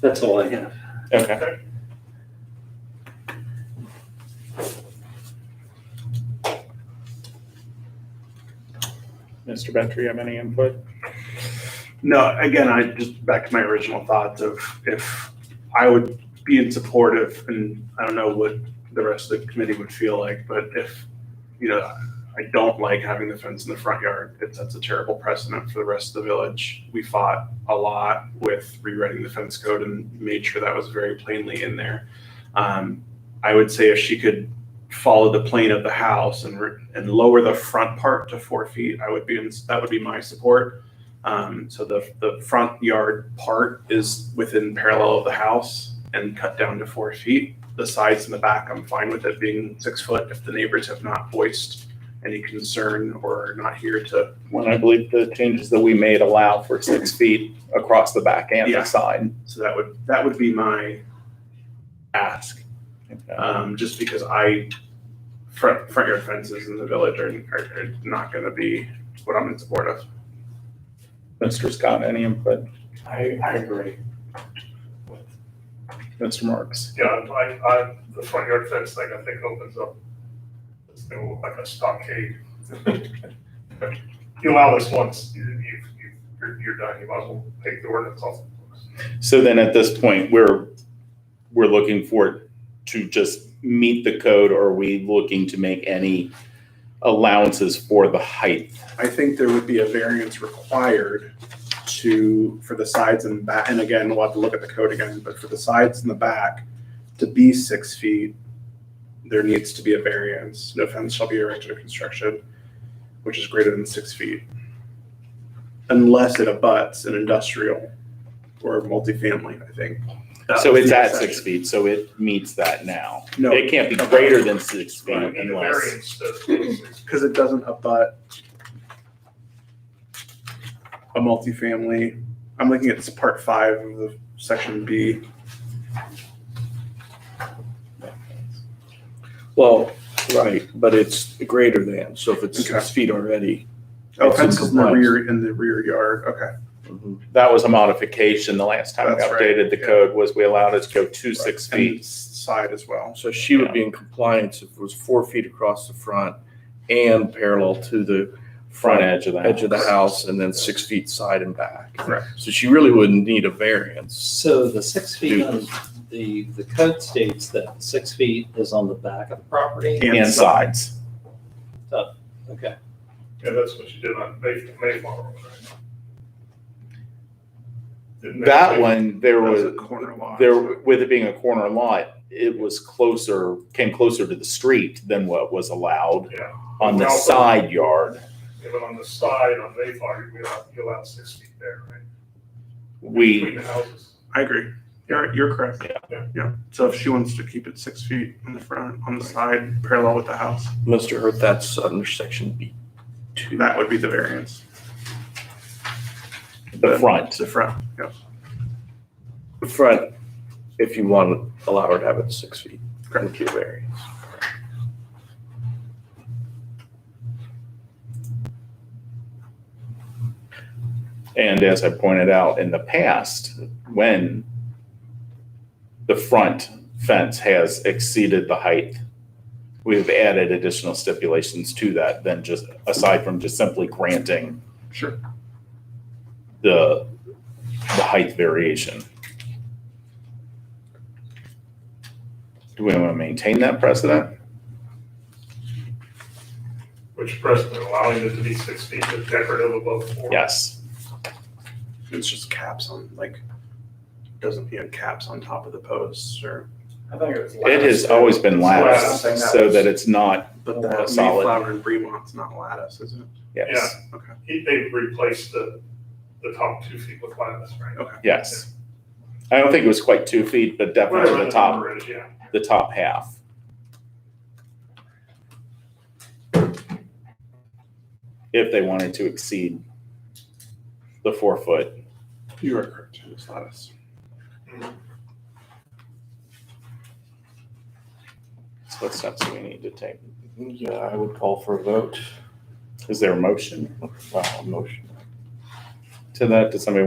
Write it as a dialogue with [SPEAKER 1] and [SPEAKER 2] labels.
[SPEAKER 1] That's all I have.
[SPEAKER 2] Okay. Mr. Bantry, you have any input?
[SPEAKER 3] No, again, I just back to my original thoughts of if I would be in support of, and I don't know what the rest of the committee would feel like, but if, you know, I don't like having the fence in the front yard. It sets a terrible precedent for the rest of the village. We fought a lot with rewriting the fence code and made sure that was very plainly in there. Um, I would say if she could follow the plane of the house and, re- and lower the front part to four feet, I would be, in- that would be my support. Um, so the, the front yard part is within parallel of the house and cut down to four feet. The sides and the back, I'm fine with it being six foot if the neighbors have not voiced any concern or are not here to,
[SPEAKER 2] When I believe the changes that we made allow for six feet across the back and
[SPEAKER 3] Yeah.
[SPEAKER 2] the side.
[SPEAKER 3] so that would, that would be my ask. Um, just because I, front, front yard fences in the village are, are are not gonna be what I'm in support of.
[SPEAKER 2] Mr. Scott, any input?
[SPEAKER 4] I, I agree.
[SPEAKER 2] Mr. Marks?
[SPEAKER 5] Yeah, I, I, the front yard fence thing, I think opens up, it's gonna look like a stockade. You allow this once, you, you, you- you're, you're done, you might as well take the ordinance off.
[SPEAKER 2] So then at this point, we're, we're looking for it to just meet the code or are we looking to make any allowances for the height?
[SPEAKER 3] I think there would be a variance required to, for the sides and back, and again, we'll have to look at the code again, but for the sides and the back, to be six feet, there needs to be a variance. No fence shall be erected or construction, which is greater than six feet. Unless it abuts an industrial or multifamily, I think. That
[SPEAKER 2] So
[SPEAKER 3] was
[SPEAKER 2] it's
[SPEAKER 3] the
[SPEAKER 2] at six
[SPEAKER 3] exception.
[SPEAKER 2] feet, so it meets that now.
[SPEAKER 3] No,
[SPEAKER 2] It can't be greater than six feet
[SPEAKER 3] Right,
[SPEAKER 5] And the
[SPEAKER 2] unless,
[SPEAKER 5] variance does.
[SPEAKER 3] because it doesn't abut a multifamily. I'm looking at this part five of the section B.
[SPEAKER 4] Well, right, but it's greater than, so if it's six
[SPEAKER 3] Okay.
[SPEAKER 4] feet already.
[SPEAKER 3] Oh,
[SPEAKER 4] It's in
[SPEAKER 3] fences in the
[SPEAKER 4] compliance.
[SPEAKER 3] rear, in the rear yard, okay.
[SPEAKER 2] that was a modification. The last time we
[SPEAKER 3] That's right,
[SPEAKER 2] updated the
[SPEAKER 3] yeah.
[SPEAKER 2] code was we allowed it to go to six
[SPEAKER 3] And
[SPEAKER 2] feet.
[SPEAKER 3] side as well.
[SPEAKER 4] So she would be in compliance if it was four feet across the front and parallel to the
[SPEAKER 2] Front edge of the
[SPEAKER 4] edge of the
[SPEAKER 2] house.
[SPEAKER 4] house and then six feet side and back.
[SPEAKER 3] Correct.
[SPEAKER 4] So she really wouldn't need a variance.
[SPEAKER 1] So the six feet on the, the code states that six feet is on the back of the property?
[SPEAKER 2] And sides.
[SPEAKER 1] Okay.
[SPEAKER 5] Yeah, that's what you did on May, Mayflower, right? Didn't they
[SPEAKER 2] That
[SPEAKER 5] say-
[SPEAKER 2] one, there
[SPEAKER 3] That was a
[SPEAKER 2] was,
[SPEAKER 3] corner lot.
[SPEAKER 2] there, with it being a corner lot, it was closer, came closer to the street than what was allowed
[SPEAKER 5] Yeah.
[SPEAKER 2] on the
[SPEAKER 5] Now, but-
[SPEAKER 2] side yard.
[SPEAKER 5] Yeah, but on the side, on Mayflower, you allow, you allow six feet there, right? Between
[SPEAKER 2] We,
[SPEAKER 5] the houses.
[SPEAKER 3] I agree. You're, you're correct.
[SPEAKER 5] Yeah.
[SPEAKER 3] Yeah, so if she wants to keep it six feet in the front, on the side, parallel with the house,
[SPEAKER 4] Mr. Hurt, that's under section B two.
[SPEAKER 3] that would be the variance.
[SPEAKER 2] the front,
[SPEAKER 3] The front, yeah.
[SPEAKER 4] The Front, if you want, allow her to have it six feet. Thank you, variance.
[SPEAKER 2] and as I pointed out in the past, when the front fence has exceeded the height, we've added additional stipulations to that than just, aside from just simply granting
[SPEAKER 3] Sure.
[SPEAKER 2] the, the height variation. Do we want to maintain that precedent?
[SPEAKER 5] Which precedent allowing it to be six feet is decorative above four.
[SPEAKER 2] Yes.
[SPEAKER 3] It's just caps on, like, doesn't, you know, caps on top of the posts or,
[SPEAKER 6] I think it was last.
[SPEAKER 2] It has always been
[SPEAKER 6] Lattice,
[SPEAKER 2] latticed
[SPEAKER 6] I think that
[SPEAKER 2] so
[SPEAKER 6] was-
[SPEAKER 2] that it's not,
[SPEAKER 3] but
[SPEAKER 2] Oh,
[SPEAKER 3] that
[SPEAKER 2] solid.
[SPEAKER 3] Mayflower and Bremont's not lattice, is it?
[SPEAKER 2] yes,
[SPEAKER 5] He, they replaced the, the top two feet with lattice, right?
[SPEAKER 2] yes. I don't think it was quite two feet, but definitely
[SPEAKER 5] Whatever
[SPEAKER 2] the
[SPEAKER 5] the
[SPEAKER 2] top,
[SPEAKER 5] number is, yeah.
[SPEAKER 2] the top half. If they wanted to exceed the four foot.
[SPEAKER 3] You are correct. It's lattice.
[SPEAKER 2] Mm-hmm. So what steps do we need to take?
[SPEAKER 4] Yeah, I would call for a vote.
[SPEAKER 2] Is there a motion
[SPEAKER 4] Wow, motion.
[SPEAKER 2] to that? Does somebody want